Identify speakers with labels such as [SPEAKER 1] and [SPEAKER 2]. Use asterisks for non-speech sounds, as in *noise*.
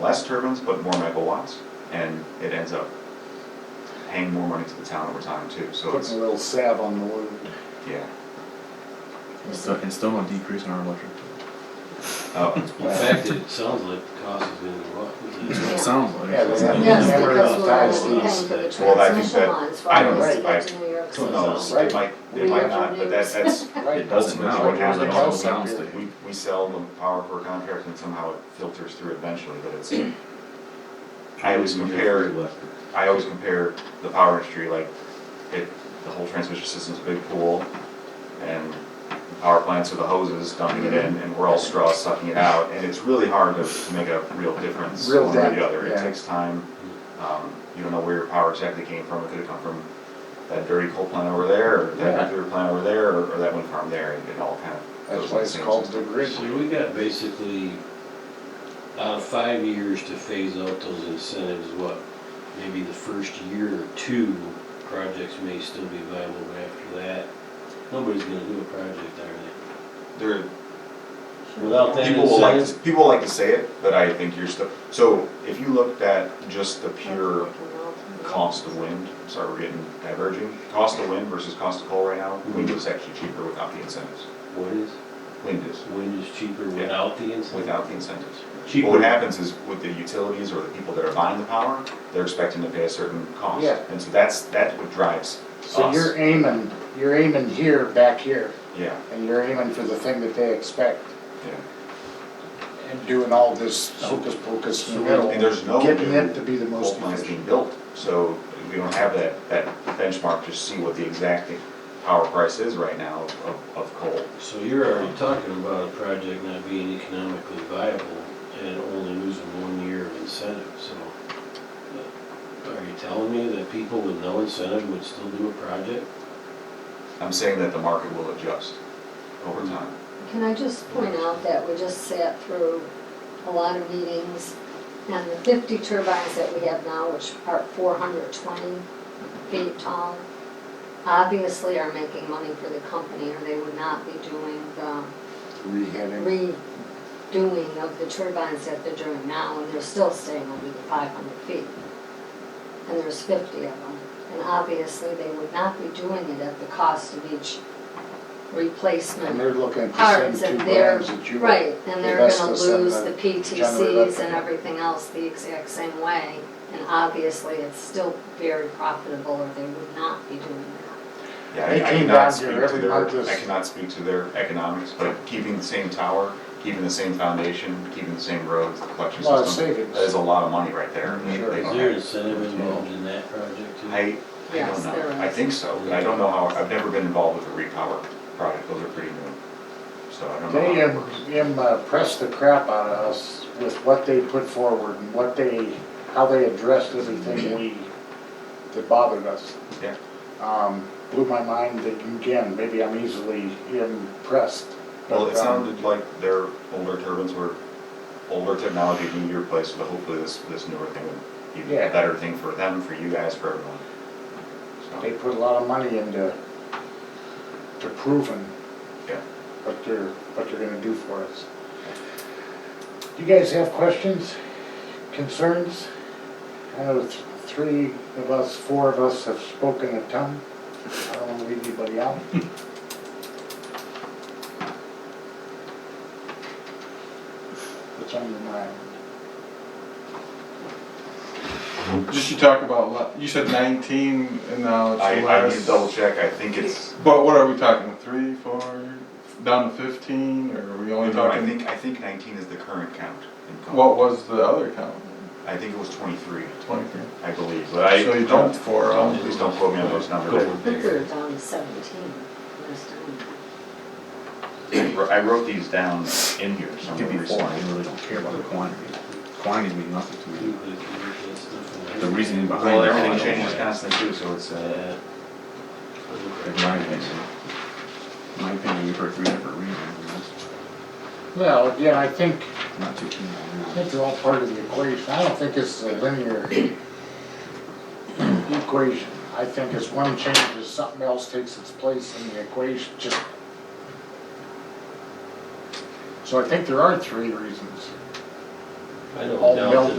[SPEAKER 1] less turbines, but more megawatts, and it ends up paying more money to the town over time too, so it's,
[SPEAKER 2] Putting a little salve on the wound.
[SPEAKER 1] yeah.
[SPEAKER 3] It's still, it's still gonna decrease in our electric. bill.
[SPEAKER 1] Oh,
[SPEAKER 4] In fact, it sounds like the cost is gonna go up.
[SPEAKER 3] It sounds like.
[SPEAKER 2] Yeah,
[SPEAKER 3] it.
[SPEAKER 2] they have-
[SPEAKER 5] Yes,
[SPEAKER 2] Never enough
[SPEAKER 5] because we'll always
[SPEAKER 2] dynasties
[SPEAKER 5] be paying for the
[SPEAKER 4] that-
[SPEAKER 1] Well, I think
[SPEAKER 5] transmission
[SPEAKER 1] that-
[SPEAKER 5] lines for
[SPEAKER 1] I don't
[SPEAKER 5] us to
[SPEAKER 2] know.
[SPEAKER 5] get to New *laughs* York
[SPEAKER 1] who
[SPEAKER 5] City.
[SPEAKER 1] knows,
[SPEAKER 2] Right.
[SPEAKER 1] it might, it
[SPEAKER 2] We
[SPEAKER 1] might
[SPEAKER 2] have
[SPEAKER 1] not, but that,
[SPEAKER 5] revenues.
[SPEAKER 1] that's,
[SPEAKER 2] *laughs* Right.
[SPEAKER 1] it doesn't,
[SPEAKER 2] That's
[SPEAKER 1] that's
[SPEAKER 3] now,
[SPEAKER 1] what
[SPEAKER 2] like
[SPEAKER 3] it doesn't
[SPEAKER 1] happens.
[SPEAKER 2] everything else
[SPEAKER 3] sound
[SPEAKER 2] up here.
[SPEAKER 3] state.
[SPEAKER 1] We, we sell the power per contract and somehow it filters through eventually, but
[SPEAKER 2] *clears throat*
[SPEAKER 1] it's, I always compare, I always compare the power industry, like, it, the whole transmission system's a big pool, and the power plants are the hoses dumping it in, and we're all straws sucking it out, and it's really hard to, to make a real difference
[SPEAKER 2] Real
[SPEAKER 1] one way or
[SPEAKER 2] dent,
[SPEAKER 1] the other, it
[SPEAKER 2] yeah.
[SPEAKER 1] takes time. Um, you don't know where your power exactly came from, it could've come from that dirty coal plant over there, or that
[SPEAKER 2] Yeah.
[SPEAKER 1] nuclear plant over there, or, or that wind farm there, and it all kind of goes
[SPEAKER 2] That's
[SPEAKER 1] in
[SPEAKER 2] why
[SPEAKER 1] the
[SPEAKER 2] it's
[SPEAKER 1] same
[SPEAKER 2] called
[SPEAKER 1] system.
[SPEAKER 2] the grid.
[SPEAKER 4] So we got basically, out of five years to phase out those incentives, what, maybe the first year or two, projects may still be viable, but after that, nobody's gonna do a project, are
[SPEAKER 1] There,
[SPEAKER 4] they? Without that
[SPEAKER 1] People will like,
[SPEAKER 4] incentive,
[SPEAKER 1] to- people like to say it, but I think you're still, so if you looked at just the pure cost of wind, sorry, we're getting diverging, cost of wind versus cost of coal right now, wind is actually cheaper without the incentives.
[SPEAKER 4] what is,
[SPEAKER 1] Wind is,
[SPEAKER 4] wind is cheaper without the incentive?
[SPEAKER 1] without the incentives. But
[SPEAKER 4] Cheaper.
[SPEAKER 1] What happens is with the utilities or the people that are buying the power, they're expecting to pay a certain cost.
[SPEAKER 2] Yeah.
[SPEAKER 1] And so that's, that's what drives
[SPEAKER 2] So you're
[SPEAKER 1] us.
[SPEAKER 2] aiming, you're aiming here, back here,
[SPEAKER 1] Yeah,
[SPEAKER 2] and you're aiming for the thing that they expect.
[SPEAKER 1] yeah.
[SPEAKER 2] And doing all this hocus pocus in the
[SPEAKER 4] So-
[SPEAKER 2] middle.
[SPEAKER 1] And there's no
[SPEAKER 2] Getting
[SPEAKER 1] new
[SPEAKER 2] it to be the most
[SPEAKER 1] coal plants being
[SPEAKER 2] efficient.
[SPEAKER 1] built, so we don't have that, that benchmark to see what the exact power price is right now of, of coal.
[SPEAKER 4] So you're already talking about a project not being economically viable and only losing one year of incentive, so. uh, Are you telling me that people with no incentive would still do a project?
[SPEAKER 1] I'm saying that the market will adjust over
[SPEAKER 2] Hmm.
[SPEAKER 1] time.
[SPEAKER 5] Can I just point out that we just sat through a lot of meetings, and the fifty turbines that we have now, which are four hundred twenty feet tall, obviously are making money for the company, or they would not be doing um, the
[SPEAKER 2] Reheading.
[SPEAKER 5] redoing of the turbines that they're doing now, and they're still staying under the five hundred feet. And there's fifty of them, and obviously they would not be doing it at the cost of each
[SPEAKER 2] And
[SPEAKER 5] replacement.
[SPEAKER 2] they're looking at the
[SPEAKER 5] Parts
[SPEAKER 2] same
[SPEAKER 5] and
[SPEAKER 2] two
[SPEAKER 5] they're-
[SPEAKER 2] brands that you.
[SPEAKER 5] Right, and they're
[SPEAKER 2] That's
[SPEAKER 5] gonna
[SPEAKER 2] the same,
[SPEAKER 5] lose
[SPEAKER 2] uh,
[SPEAKER 5] the
[SPEAKER 2] General
[SPEAKER 5] PTCs
[SPEAKER 2] Electric.
[SPEAKER 5] and everything else the exact same way, and obviously it's still very profitable, or they would not be doing that.
[SPEAKER 1] Yeah,
[SPEAKER 2] They
[SPEAKER 1] I- I
[SPEAKER 2] came
[SPEAKER 1] cannot
[SPEAKER 2] down
[SPEAKER 1] speak
[SPEAKER 2] here
[SPEAKER 1] to
[SPEAKER 2] every month
[SPEAKER 1] their,
[SPEAKER 2] this-
[SPEAKER 1] I cannot speak to their economics, but keeping the same tower, keeping the same foundation, keeping the same roads, the collection
[SPEAKER 2] Lot of
[SPEAKER 1] system,
[SPEAKER 2] savings.
[SPEAKER 1] that is a lot of money right there. They-
[SPEAKER 2] Sure.
[SPEAKER 1] they
[SPEAKER 4] Is
[SPEAKER 1] don't
[SPEAKER 4] there
[SPEAKER 1] have-
[SPEAKER 4] incentive involved in that project too?
[SPEAKER 1] I, I don't
[SPEAKER 5] Yes,
[SPEAKER 1] know.
[SPEAKER 5] there
[SPEAKER 1] I
[SPEAKER 5] is.
[SPEAKER 1] think so. I don't know how, I've never been involved with the repower project. Those are pretty new. So I don't know.
[SPEAKER 2] They
[SPEAKER 1] how it
[SPEAKER 2] im-
[SPEAKER 1] works.
[SPEAKER 2] impressed the crap out of us with what they put forward and what they, how they addressed
[SPEAKER 1] Mm-hmm.
[SPEAKER 2] everything we, that bothered us.
[SPEAKER 1] Yeah.
[SPEAKER 2] Um, Blew my mind that, again, maybe I'm easily impressed.
[SPEAKER 1] Well,
[SPEAKER 2] but,
[SPEAKER 1] it
[SPEAKER 2] um,
[SPEAKER 1] sounded like their older turbines were older technology being replaced, but hopefully this, this newer thing would be a
[SPEAKER 2] Yeah.
[SPEAKER 1] better thing for them, for you guys, for everyone.
[SPEAKER 2] They
[SPEAKER 1] So,
[SPEAKER 2] put a lot of money into, to proving
[SPEAKER 1] yeah.
[SPEAKER 2] what they're, what they're gonna do for us. Do you guys have questions, concerns? I know th- three of us, four of us have spoken a ton. I don't wanna leave anybody out. What's on your mind?
[SPEAKER 6] Just you talk about, lo- you said 19 and now it's
[SPEAKER 1] I, I need to
[SPEAKER 6] less.
[SPEAKER 1] double check. I think it's,
[SPEAKER 6] But what are we talking, three, four, down to 15, or are we only
[SPEAKER 1] no, I
[SPEAKER 6] talking?
[SPEAKER 1] think, I think nineteen is the current count. in Cone.
[SPEAKER 6] What was the other count?
[SPEAKER 1] I think it was twenty-three,
[SPEAKER 6] 23.
[SPEAKER 1] I believe, but I.
[SPEAKER 6] So you jumped four, um,
[SPEAKER 1] Please don't quote me on those numbers.
[SPEAKER 4] Go
[SPEAKER 5] I think we were
[SPEAKER 4] bigger.
[SPEAKER 5] down to seventeen last time.
[SPEAKER 1] I wrote- I wrote these down in here
[SPEAKER 3] It could
[SPEAKER 1] somewhere
[SPEAKER 3] be four,
[SPEAKER 1] recently.
[SPEAKER 3] I really don't care about the quantity. Quantities mean nothing to me. The reasoning
[SPEAKER 4] behind.
[SPEAKER 3] behind
[SPEAKER 1] Well,
[SPEAKER 3] it.
[SPEAKER 1] everything changes constantly too, so it's, uh,
[SPEAKER 3] In my opinion, In my opinion, we've heard three different reasons, and
[SPEAKER 2] Well, again, I think,
[SPEAKER 3] that's not too keen
[SPEAKER 2] I
[SPEAKER 3] on that.
[SPEAKER 2] think they're all part of the equation. I don't think this is a linear *clears throat* equation. I think as one changes, something else takes its place in the equation, just. So I think there are three reasons.
[SPEAKER 4] I don't
[SPEAKER 2] all
[SPEAKER 4] doubt
[SPEAKER 2] melted
[SPEAKER 4] that